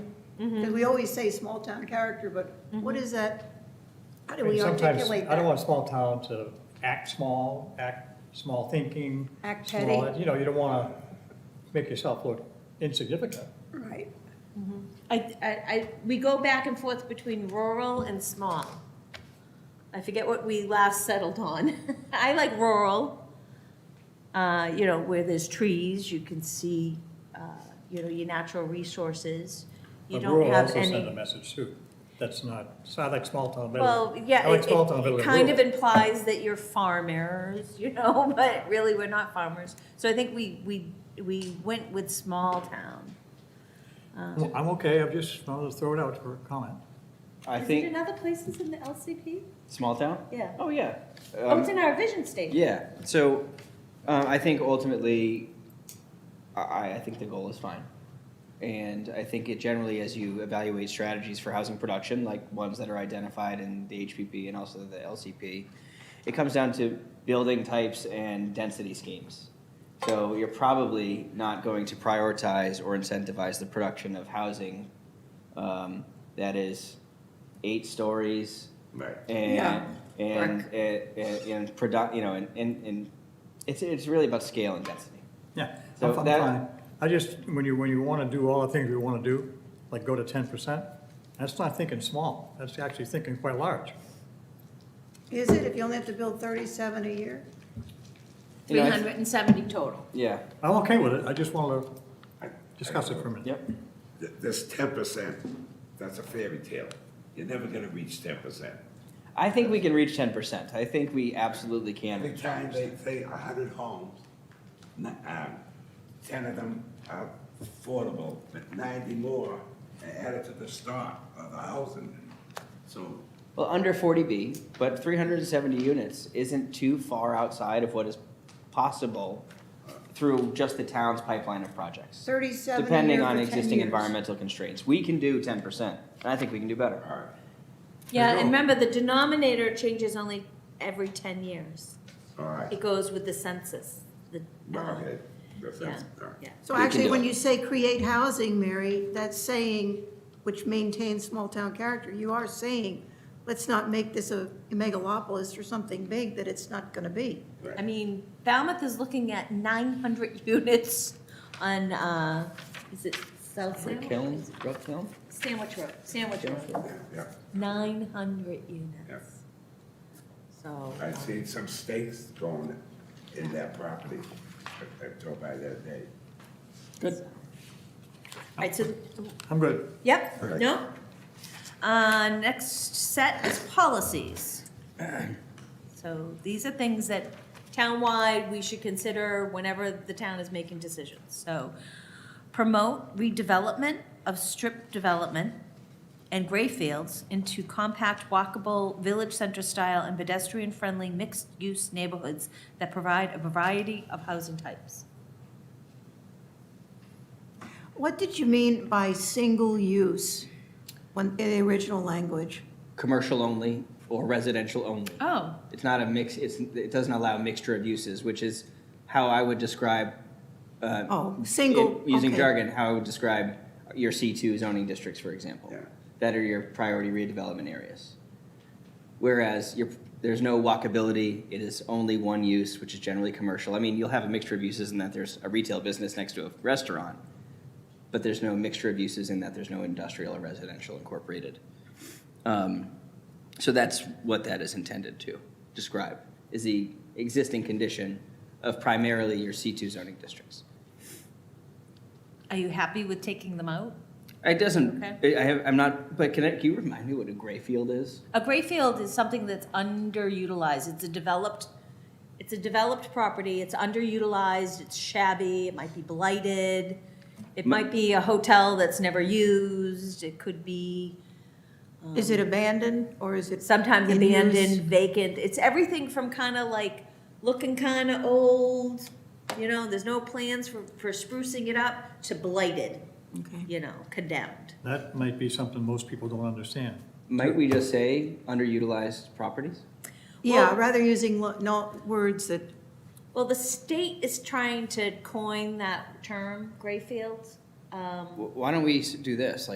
Because we always say small town character, but what is that? How do we And sometimes, articulate I don't that? want a small town to act small, act small thinking. Act small- petty. You know, you don't want to make yourself look insignificant. Right. I, I, I, we go back and forth between rural and small. I forget what we last settled on. I like rural, uh, you know, where there's trees, you can see, uh, you know, your natural resources. You But don't rural have also send a any. message too. That's not, so I like small town better. Well, yeah, I like it, small town better it than kind of rural. implies that you're farmers, you know, but really we're not farmers. So I think we, we, we went with small town. Um, Well, I'm okay, I'm just, I'll just throw it out for comment. I Is it think in other places in the LCP? small town. Yeah. Oh yeah. Oh, Um, it's in our vision statement. yeah. So um, I think ultimately, I, I think the goal is fine, and I think it generally, as you evaluate strategies for housing production, like ones that are identified in the HPP and also the LCP, it comes down to building types and density schemes. So you're probably not going to prioritize or incentivize the production of housing um, that is eight stories Right. and Yeah. and, and and and produ- you know and, and and it's it's really about scale and density. Yeah, So I'm I'm that- fine. I just, when you, when you want to do all the things we want to do, like go to ten percent, that's not thinking small, that's actually thinking quite large. Is it if you only have to build thirty-seven a year? You know, I- 370 total. Yeah. I'm okay with it, I just want to discuss it for a minute. Yep. Th- This ten percent, that's a fairy tale. You're never gonna reach ten percent. I think we can reach ten percent. I think we absolutely can. Every reach time 10%. they say a hundred homes, n- um, ten of them are affordable, but ninety more are added to the stock of the housing. So, Well, under forty B, but three hundred and seventy units isn't too far outside of what is possible through just the town's pipeline of projects. Thirty-seven a Depending year on for 10 existing years. environmental constraints, we can do ten percent, and I think we can do better. all right. Yeah, and There you remember, the denominator changes only every 10 years. go. All right, It goes with the census. The, Well, uh, Oh, okay, that's, yeah, that's, all right. yeah. So We can actually, do when it. you say create housing, Mary, that's saying, which maintains small-town character, you are saying, let's not make this a megalopolis or something big that it's not gonna be. right. I mean, Falmouth is looking at 900 units on, uh, is it South Like Sandwich? Kiln, Brook Kiln? Sandwich Road, Sandwich Road. Yeah, yeah. 900 Yeah. units. So, I seen some stakes going in that property. I I drove by that day. Good. all right, so I'm good. Yep, Okay. no. Uh, next set is policies. So these are things that townwide we should consider whenever the town is making decisions. So promote redevelopment of strip development and gray fields into compact walkable village center style and pedestrian friendly mixed use neighborhoods that provide a variety of housing types. What did you mean by single use when, in the original language? commercial only or residential only. Oh, It's not a mix, it's, it doesn't allow a mixture of uses, which is how I would describe, uh, Oh, single, in- using okay. jargon, how I would describe your C2 zoning districts, for example. Yeah. That are your priority redevelopment areas. Whereas your, there's no walkability, it is only one use, which is generally commercial. I mean, you'll have a mixture of uses in that there's a retail business next to a restaurant, but there's no mixture of uses in that there's no industrial or residential incorporated. Um, so that's what that is intended to describe, is the existing condition of primarily your C2 zoning districts. are you happy with taking them out? It doesn't, Okay. I I have, I'm not, but can I, can you remind me what a gray field is? A gray field is something that's underutilized. It's a developed, it's a developed property. It's underutilized. It's shabby. It might be blighted. It might be a hotel that's never used. It could be um, Is it abandoned or is it? sometimes in use? abandoned, vacant. It's everything from kind of like looking kind of old, you know, there's no plans for, for sprucing it up to blighted, Okay. you know, condemned. That might be something most people don't understand. Might we just say underutilized properties? Yeah, Well- rather using lo- no, words that, Well, the state is trying to coin that term, gray fields. Um, Wh- Why don't we s- do this? Like,